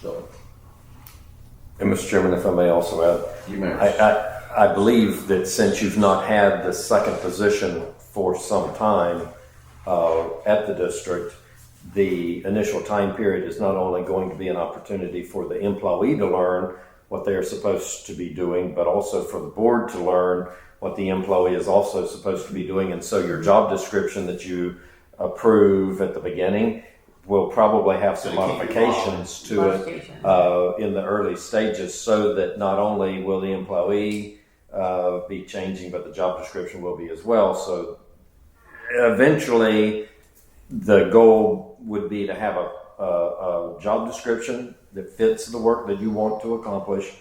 So, And Mr. Chairman, if I may also add, you may. I, I, I believe that since you've not had the second position for some time uh, at the district, the initial time period is not only going to be an opportunity for the employee to learn what they are supposed to be doing, but also for the board to learn what the employee is also supposed to be doing. And so your job description that you approve at the beginning will probably have some Gonna keep you modifications to it Modification. uh, in the early stages so that not only will the employee uh, be changing, but the job description will be as well. So eventually, the goal would be to have a, a, a job description that fits the work that you want to accomplish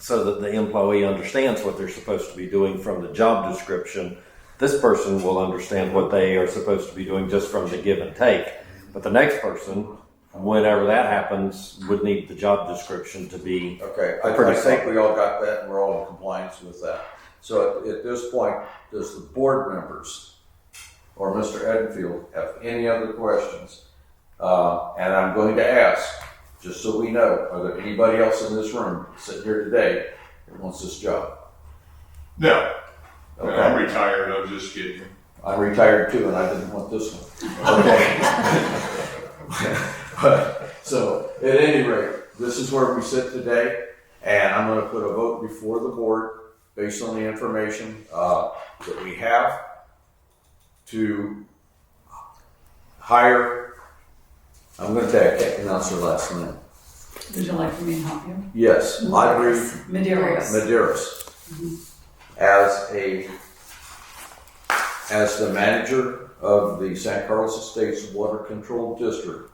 so that the employee understands what they're supposed to be doing from the job description. This person will understand what they are supposed to be doing just from the give and take. But the next person, whenever that happens, would need the job description to be. Okay, I, I Pretty think we all got that and we're all in compliance with that. So at, at this point, does the board members or Mr. Edenfield have any other questions? Uh, and I'm going to ask, just so we know, are there anybody else in this room sitting here today that wants this job? No, no, Okay, I'm retired. I'm just kidding. I'm retired too and I didn't want this one. Okay. But, so at any rate, this is where we sit today, and I'm going to put a vote before the board based on the information uh, that we have to hire. I'm going to tag. I can't pronounce her last name. Would you like for me to help you? Yes, Audrey Medeiros. Medeiros as a as the manager of the San Carlos Estates Water Control District,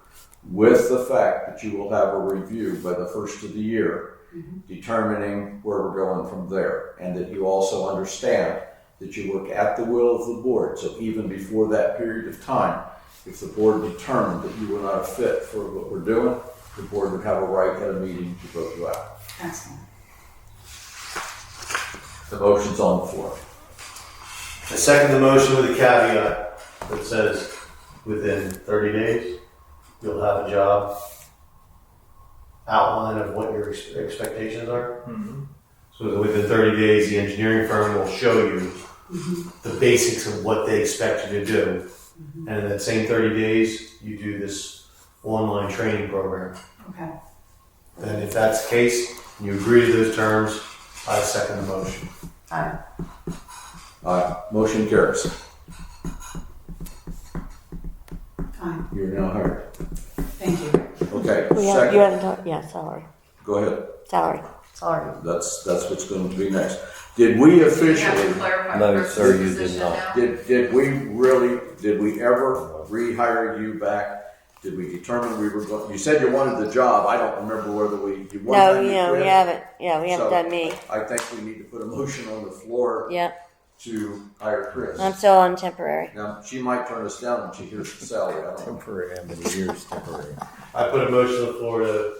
with the fact that you will have a review by the first of the year, determining where we're going from there, and that you also understand that you work at the will of the board. So even before that period of time, if the board determined that you were not a fit for what we're doing, the board would have a right at a meeting to vote you out. Excellent. The motion's on the floor. I second the motion with a caveat that says, within thirty days, you'll have a job outline of what your ex- expectations are. So that within thirty days, the engineering firm will show you the basics of what they expect you to do. And in that same thirty days, you do this online training program. Okay. Then if that's the case, and you agree to those terms, I second the motion. Aye. Aye. Motion carries. Aye. You're now hired. Thank you. Okay, We have, you second. haven't talked, yeah, salary, Go ahead. salary, sorry. That's, that's what's going to be next. Did we You have to officially, clarify No, first sir, you did position not. now. did, did we really, did we ever rehire you back? Did we determine we were going, you said you wanted the job. I don't remember whether we, you No, wanted. yeah, we haven't, yeah, we haven't So- done me, I think we need to put a motion on the floor yep, to hire Chris. I'm still on temporary. Now, she might turn us down when she hears the salary. I don't know. Temporary, how many years temporary? I put a motion on the floor to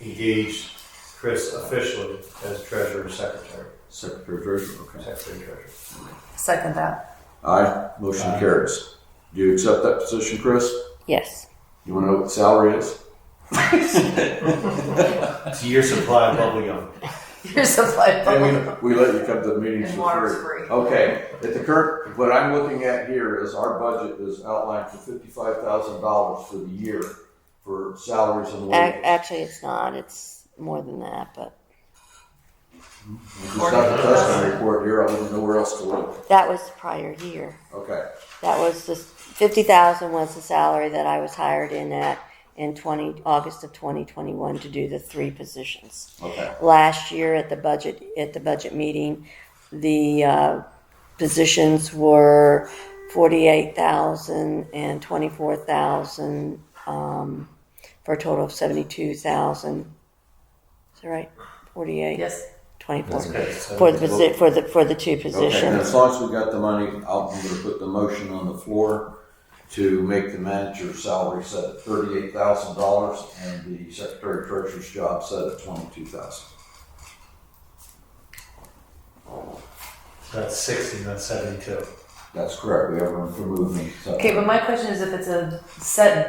engage Chris officially as treasurer secretary. Secretary Treasurer, okay. Secretary treasurer. Second that. Aye, motion carries. Do you accept that position, Chris? Yes, You want to know what the salary is? It's a year supply of bubble gum. Your supply And we, we let you come to the meetings And for water's free. free. Okay, at the current, what I'm looking at here is our budget is outlined for fifty-five thousand dollars for the year for salaries and Ac- wages. actually, it's not, it's more than that, but It's not the testing report here, I don't know where else to look. that was the prior year. Okay, That was the, fifty thousand was the salary that I was hired in at in twenty, August of twenty twenty-one to do the three positions. okay. last year at the budget, at the budget meeting, the uh, positions were 48,000 and 24,000 um, for a total of 72,000. Is that right? 48, Yes. 24, Okay, so- for the, posi- for the, for the two Okay, and positions. as long as we got the money, I'll- I'm gonna put the motion on the floor to make the manager's salary set at thirty-eight thousand dollars and the secretary treasurer's job set at twenty-two thousand. That's sixty, not seventy-two. That's correct, we have room for movement. so- Okay, but my question is if it's a set